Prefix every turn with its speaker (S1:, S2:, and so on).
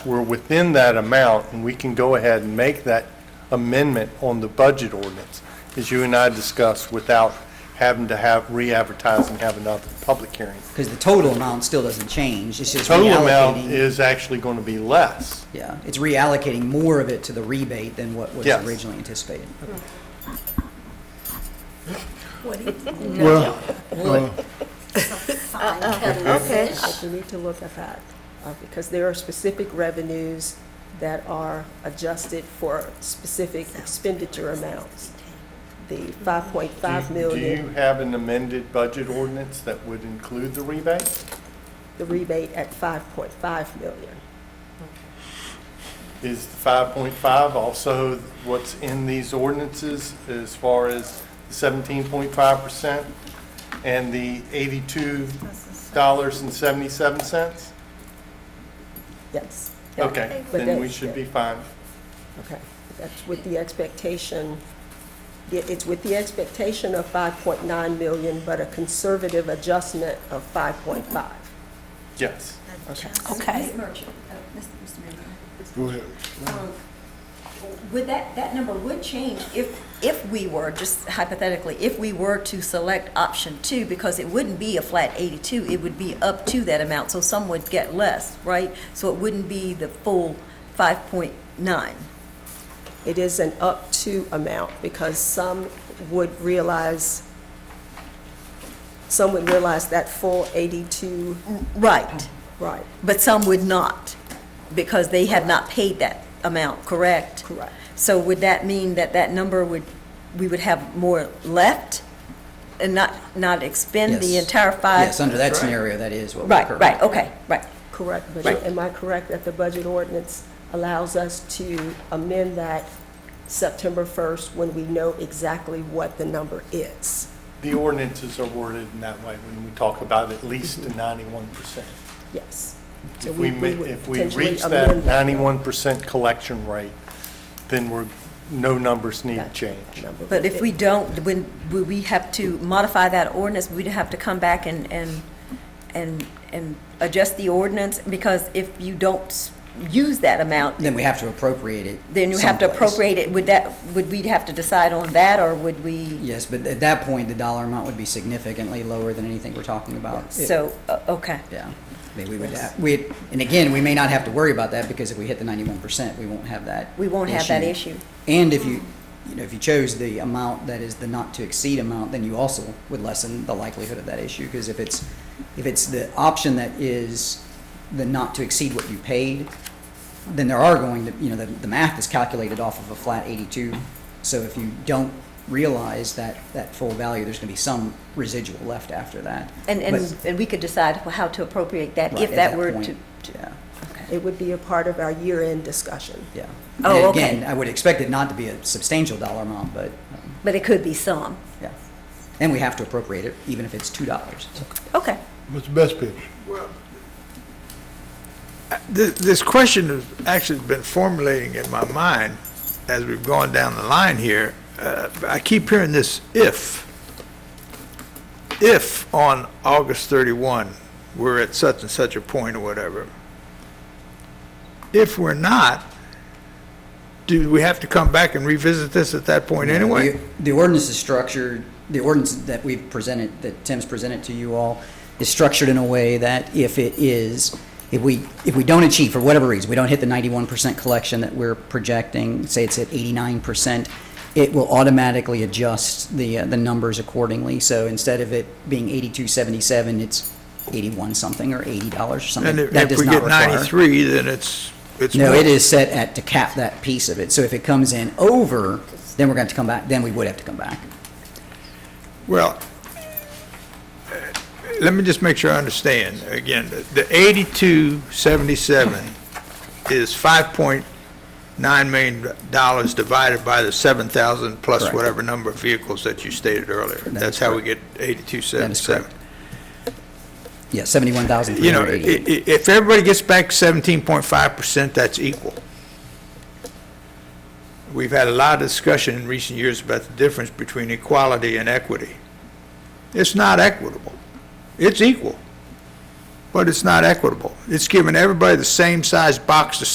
S1: we're within that amount, and we can go ahead and make that amendment on the budget ordinance, as you and I discussed, without having to have, re-advertise and have another public hearing.
S2: Because the total amount still doesn't change, it's just
S1: Total amount
S2: reallocating.
S1: is actually going to be less.
S2: Yeah, it's reallocating more of it to the rebate than what was
S1: Yes.
S2: originally anticipated.
S3: Well,
S4: Okay.
S5: But we need to look at that, uh, because there are specific revenues that are adjusted for specific expenditure amounts. The five point five
S1: Do do you
S5: million,
S1: have an amended budget ordinance that would include the rebate?
S5: the rebate at five point five million.
S1: Is the 5.5 also what's in these ordinances as far as the 17.5% and the $82.77?
S5: Yes. Yeah.
S1: Okay,
S5: But
S1: then we
S5: that's-
S1: should be fine.
S5: Okay, that's with the expectation, yeah, it's with the expectation of five point nine million, but a conservative adjustment of five point five.
S1: Yes.
S4: Okay.
S6: Mr. Merchant, uh, Mr. Mr. Mayor,
S3: go ahead.
S6: um, would that, that number would change if, if we were, just hypothetically, if we were to select option two, because it wouldn't be a flat 82, it would be up to that amount, so some would get less, right? So it wouldn't be the full 5.9.
S5: It is an up-to amount because some would realize, some would realize that full 82,
S6: Right,
S5: right,
S6: but some would not, because they have not paid that amount, correct?
S5: correct.
S6: So would that mean that that number would, we would have more left and not, not expend the
S2: Yes.
S6: entire five?
S2: Yes, under that scenario, that is what would
S6: Right,
S2: occur.
S6: right, okay, right.
S5: Correct, but
S6: Right.
S5: am I correct that the budget ordinance allows us to amend that September 1st when we know exactly what the number is?
S1: The ordinances are worded in that way when we talk about at least a 91%.
S5: Yes. So
S1: If we, ma-
S5: would
S1: if we
S5: potentially
S1: reach that
S5: amend
S1: 91% collection rate, then we're, no numbers need to
S5: that
S1: change.
S5: number.
S6: But if we don't, when, would we have to modify that ordinance? We'd have to come back and, and, and, and adjust the ordinance? Because if you don't s- use that amount,
S2: Then we have to appropriate it.
S6: then you have to
S2: someplace.
S6: appropriate it. Would that, would we have to decide on that, or would we?
S2: Yes, but at that point, the dollar amount would be significantly lower than anything we're talking about.
S6: So, uh, okay.
S2: Yeah, I mean, we would, have- we, and again, we may not have to worry about that, because if we hit the ninety-one percent, we won't have that.
S6: We won't have that issue.
S2: And if you, you know, if you chose the amount that is the not-to-exceed amount, then you also would lessen the likelihood of that issue, because if it's, if it's the option that is the not-to-exceed what you paid, then there are going to, you know, the, the math is calculated off of a flat eighty-two, so if you don't realize that, that full value, there's gonna be some residual left after that.
S6: And,
S2: But-
S6: and, and we could decide how to appropriate that,
S2: Right,
S6: if
S2: at
S6: that were
S2: point,
S6: to,
S2: Yeah,
S5: It would be a part of our year-end discussion.
S2: yeah.
S6: Oh,
S2: And
S6: okay.
S2: Again, I would expect it not to be a substantial dollar amount, but, um,
S6: but it could be some.
S2: yeah. And we have to appropriate it, even if it's two dollars.
S6: Okay.
S3: Mr. Best Pitch.
S7: This, this question has actually been formulating in my mind as we've gone down the line here. Uh, I keep hearing this if. If on August 31, we're at such and such a point or whatever. If we're not, do we have to come back and revisit this at that point anyway?
S2: The the ordinance is structured, the ordinance that we've presented, that Tim's presented to you all, is structured in a way that if it is, if we, if we don't achieve, for whatever reason, we don't hit the ninety-one percent collection that we're projecting, say it's at eighty-nine percent, it will automatically adjust the, uh, the numbers accordingly. So instead of it being eighty-two seventy-seven, it's eighty-one something or eighty dollars or something.
S7: And if
S2: That
S7: if
S2: does
S7: we
S2: not
S7: get
S2: require-
S7: 93, then it's, it's.
S2: no,
S7: more.
S2: it is set at to cap that piece of it. So if it comes in over, then we're going to come back, then we would have to come back.
S7: Well, uh, let me just make sure I understand. Again, the eighty-two seventy-seven is five point nine million dollars divided by the seven thousand plus
S2: Correct.
S7: whatever number of vehicles that you stated earlier. That's how we get
S2: That
S7: eighty-two
S2: is correct.
S7: seventy-seven.
S2: Yeah, seventy-one thousand three
S7: You know, i-
S2: hundred eighty.
S7: i- if everybody gets back seventeen point five percent, that's equal. We've had a lot of discussion in recent years about the difference between equality and equity. It's not equitable. It's equal, but it's not equitable. It's giving everybody the same size box to